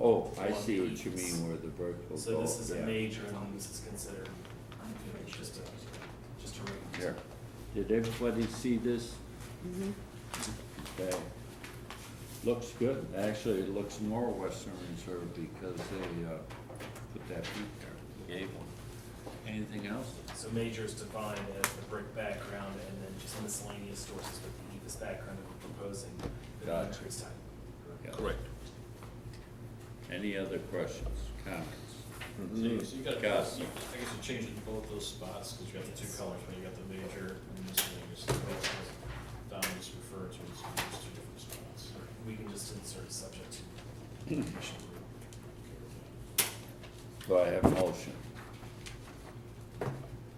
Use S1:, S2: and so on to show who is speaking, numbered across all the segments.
S1: Oh, I see what you mean where the brick will go.
S2: Um, So this is a
S1: yeah.
S2: major, and this is considered, you know, just a, just a ring.
S1: Here. Did everybody see this?
S2: Mm-hmm.
S1: Okay. Looks good. Actually, it looks more Western Reserve because they, uh, put that peak there. Gave one. Anything else?
S2: So major is defined as the brick background and then just miscellaneous sources with the Eva's background that we're proposing, the
S1: Got it.
S2: country's type.
S1: Yeah.
S3: Correct.
S1: Any other questions, comments?
S3: So you so you got, I
S1: Got
S3: guess
S1: it.
S3: you're changing both those spots, because you got the two
S2: Yes.
S3: colors, but you got the major and this thing, is the color that Don just referred to, as those two different spots.
S2: We can just insert subject to. commission rule.
S1: Do I have a motion?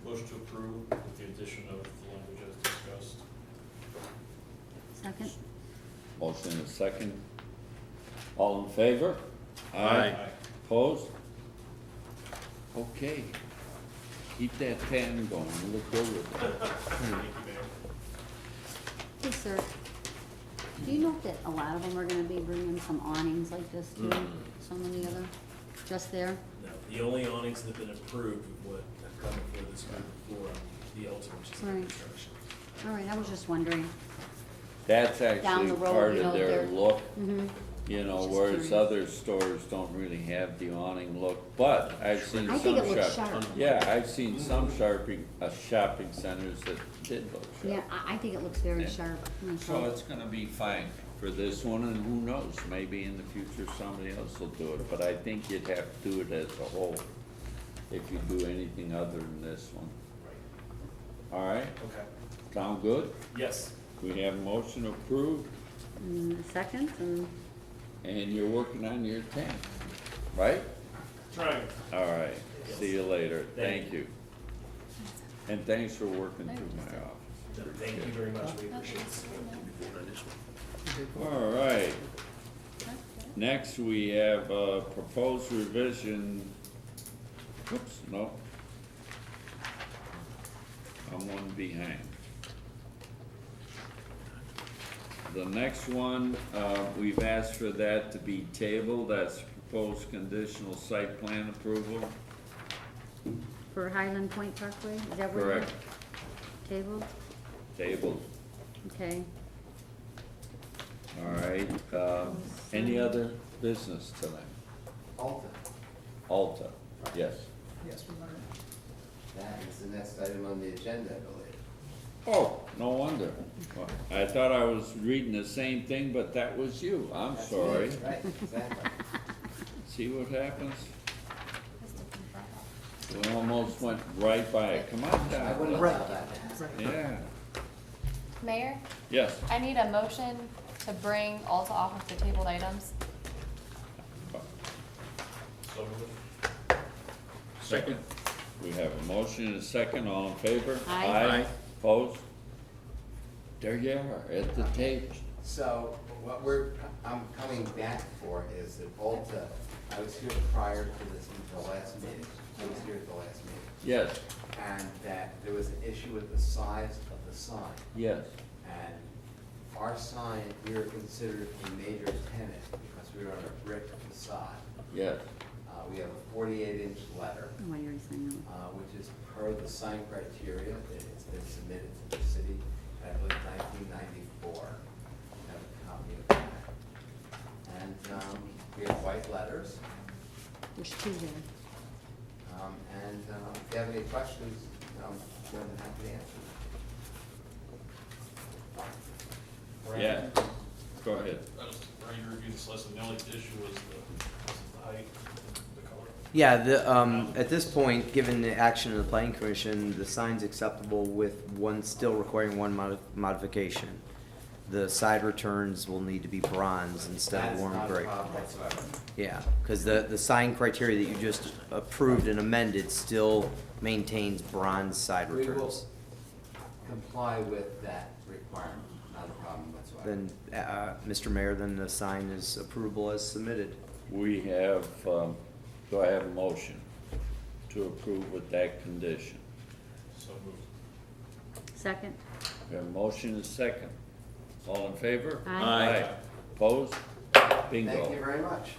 S3: Motion to approve with the addition of the language as discussed.
S4: Second?
S1: Motion and second. All in favor?
S3: Aye.
S1: Opposed? Okay. Keep that tan going, you look good with that.
S3: Thank you, Mayor.
S4: Hey, sir, do you know that a lot of them are gonna be bringing some awnings like this too?
S1: Mm.
S4: Some of the other, just there?
S2: No, the only awnings that have been approved of what have come before this group before, um, the Elton, which is under
S4: Right.
S2: construction.
S4: All right, I was just wondering.
S1: That's
S4: Down
S1: actually
S4: the road,
S1: part
S4: you
S1: of
S4: know,
S1: their
S4: they're-
S1: look,
S4: Mm-hmm.
S1: you know,
S4: Just
S1: whereas
S4: curious.
S1: other stores don't really have the awning look, but I've seen
S4: I
S1: some
S4: think it looks
S1: shop-
S4: sharp.
S1: Yeah, I've seen some shopping, uh, shopping centers that did look
S4: Yeah,
S1: sharp.
S4: I, I think it looks very
S1: Yeah.
S4: sharp.
S1: So it's gonna be fine for this one, and who knows, maybe in the future somebody else will do it, but I think you'd have to do it as a whole if you do anything other than this one.
S2: Right,
S1: All right,
S2: okay,
S1: sound good?
S2: yes.
S1: We have motion approved,
S4: Mm, Second, and
S1: and you're working on your tank, right?
S2: Trying.
S1: All right, see you later,
S2: Thank
S1: thank you. And thanks for working through my office.
S2: Thank you very much, we appreciate this.
S1: All right. Next, we have uh proposed revision, whoops, no. I'm one behind. The next one, uh, we've asked for that to be tabled, that's proposed conditional site plan approval,
S4: for Highland Point Parkway, is that where?
S1: correct?
S4: Table,
S1: Tabled,
S4: okay.
S1: all right, um, any other business tonight?
S5: Alton,
S1: Alta, yes.
S6: Yes, we learned.
S5: that is the next item on the agenda, I believe.
S1: Oh, no wonder. I thought I was reading the same thing, but that was you. I'm
S5: That's
S1: sorry.
S5: it, Right, exactly.
S1: See what happens? We almost went right by it. Come on
S5: I wouldn't
S1: down.
S5: have thought about that.
S1: Yeah.
S7: Mayor,
S1: Yes.
S7: I need a motion to bring Alta off of the tabled items.
S3: So moved.
S1: Second. We have a motion and a second. All in favor?
S4: Aye. Aye.
S1: Opposed? There you are, at the table.
S5: So what we're, I'm coming back for is that Alta, I was here prior to this, the last meeting, I was here at the last meeting.
S1: Yes,
S5: And that there was an issue with the size of the sign.
S1: yes.
S5: And our sign, we were considered a major tenant because we were on a brick facade.
S1: Yes,
S5: Uh, we have a forty-eight inch letter.
S4: Why are you saying that?
S5: uh, which is per the sign criteria that has been submitted to the city, I believe nineteen ninety-four. I have a copy of that. And, um, we have white letters,
S4: There's two there.
S5: um, and, um, if you have any questions, um, I'm more than happy to answer them.
S1: yeah. Go ahead.
S3: I was, Brian, you reviewed this last, and the only issue was the, was the height, the color.
S8: Yeah, the, um, at this point, given the action of the planning commission, the sign's acceptable with one, still requiring one modi- modification. The side returns will need to be bronze instead of
S5: That's
S8: warm
S5: not a
S8: gray.
S5: problem whatsoever.
S8: Yeah, cause the, the sign criteria that you just approved and amended still maintains bronze side
S5: We will-
S8: returns.
S5: Comply with that requirement, not a problem whatsoever.
S8: Then, uh, Mr. Mayor, then the sign is approvable as submitted.
S1: We have, um, do I have a motion to approve with that condition?
S3: So moved.
S4: Second?
S1: We have a motion and a second. All in favor?
S4: Aye.
S1: Opposed? Bingo.
S5: Thank you very much.